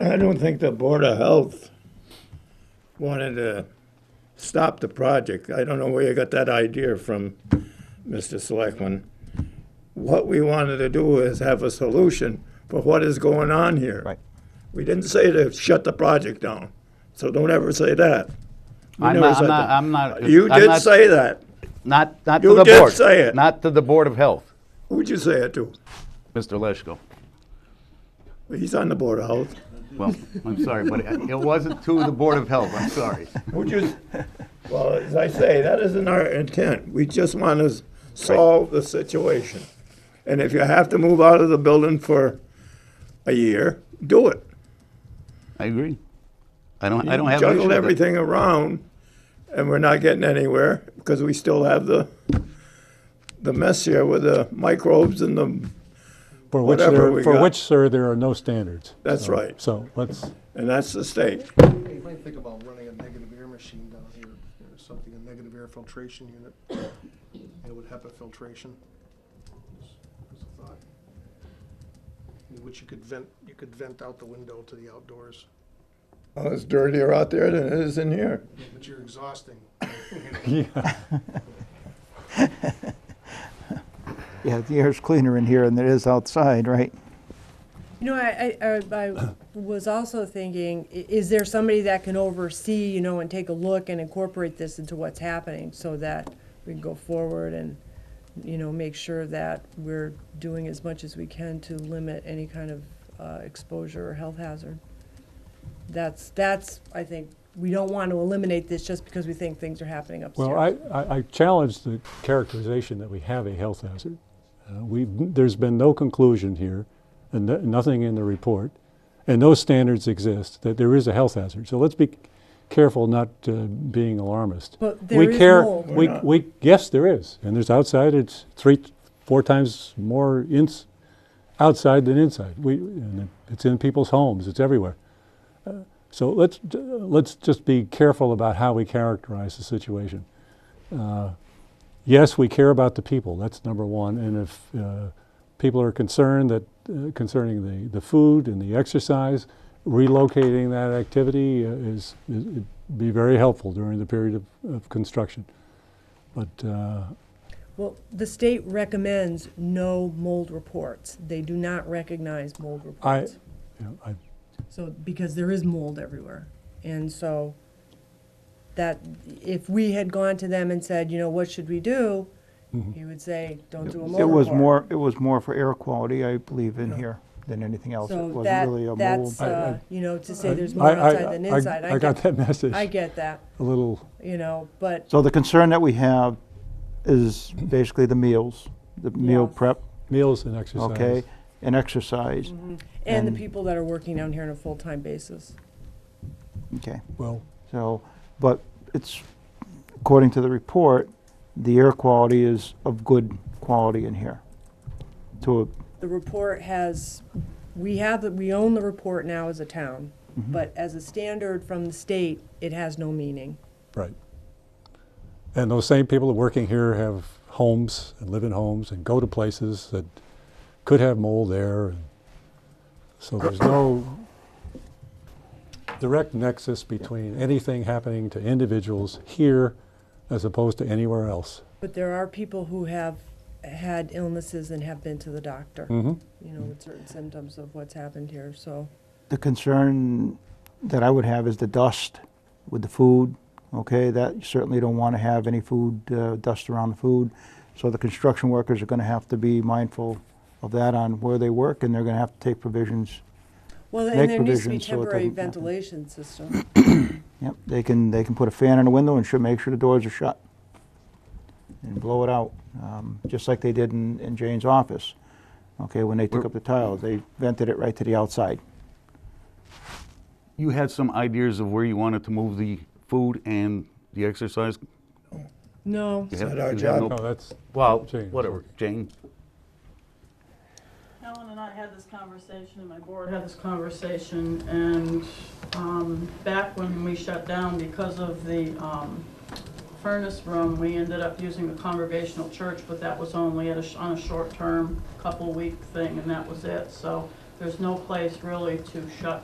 I don't think the Board of Health wanted to stop the project. I don't know where you got that idea from, Mr. Selectman. What we wanted to do is have a solution for what is going on here. Right. We didn't say to shut the project down, so don't ever say that. You I'm never not- I'm said not- that. I'm not- You I'm did not- say that. Not, not to You the board. did say it. Not to the Board of Health, Who'd you say it to? Mr. Lesko. He's on the Board of Health. Well, I'm sorry, but it wasn't to the Board of Health, I'm sorry. Would you, well, as I say, that isn't our intent. We just want to solve the situation. And if you have to move out of the building for a year, do it. I agree. I don't, I don't have an issue Juggle with it. everything around, and we're not getting anywhere because we still have the, the mess here with the microbes and the, For which Whatever there, we for got. which, sir, there are no standards. That's So- right. So let's, and that's the state. You might think about running a negative air machine down here, or something, a negative air filtration unit, you know, with HEPA filtration. There's- there's a thought. In Which you could vent, you could vent out the window to the outdoors, Well, It's dirtier out there than it is in here. but you're exhausting. yeah, Yeah, the air's cleaner in here than it is outside, right? You know, I, I, I- I was also thinking, i- is there somebody that can oversee, you know, and take a look and incorporate this into what's happening so that we can go forward and, you know, make sure that we're doing as much as we can to limit any kind of uh, exposure or health hazard? That's, that's, I think, we don't want to eliminate this just because we think things are happening upstairs. well, I, I I challenge the characterization that we have a health hazard. Uh, We've, there's been no conclusion here, and no- nothing in the report, and no standards exist that there is a health hazard. So let's be careful not uh, being alarmist. But We there is care- mold. We, We're not. we, yes, there is, and there's outside, it's three, four times more ins, outside than inside. We, and it's in people's homes, it's everywhere. Uh, So let's, d- let's just be careful about how we characterize the situation. Uh, Yes, we care about the people, that's number one, and if uh, people are concerned that, uh, concerning the, the food and the exercise, relocating that activity uh, is, is, it'd be very helpful during the period of, of construction. But, uh, Well, the state recommends no mold reports. They do not recognize mold I, reports. you know, I, So, because there is mold everywhere. And so that, if we had gone to them and said, you know, what should we do? You would say, don't do a mold report. It was more, it was more for air quality, I believe, in here than anything else. It So wasn't really that, a mold. that's, I- uh, you know, to say there's I- more I- outside than I- inside. I got get- that message, I a get that, little, you know, but So the concern that we have is basically the meals, the meal Yes. prep, meals and exercise. okay? And exercise, Mm-hmm. and the And- people that are working down here on a full-time basis. okay? Well, So, but it's, according to the report, the air quality is of good quality in here. To, a- The report has, we have, the we own the report now as a town, but as a standard from the state, it has no meaning. Right. And those same people that are working here have homes and live in homes and go to places that could have mold there. and So there's no direct nexus between anything happening to individuals here as opposed to anywhere else. But there are people who have had illnesses and have been to the doctor, Mm-hmm. you know, with certain symptoms of what's happened here, so. the concern that I would have is the dust with the food, okay? That, you certainly don't want to have any food, uh, dust around the food. So the construction workers are going to have to be mindful of that on where they work, and they're going to have to take provisions. Well, Make and there needs to be provisions so it temporary doesn't happen. ventilation system. Yep, they can, they can put a fan in the window and should make sure the doors are shut and blow it out, um, just like they did in, in Jane's office. Okay, when they took up the tiles, they vented it right to the outside. You had some ideas of where you wanted to move the food and the exercise? No, You not our have- you have job. No, no- that's, Well, Jane, whatever, Jane. Helen and I had this conversation, and my board had this conversation, and um, back when we shut down because of the um, furnace room, we ended up using the congregational church, but that was only at a sh- on a short-term, couple-week thing, and that was it. So there's no place really to shut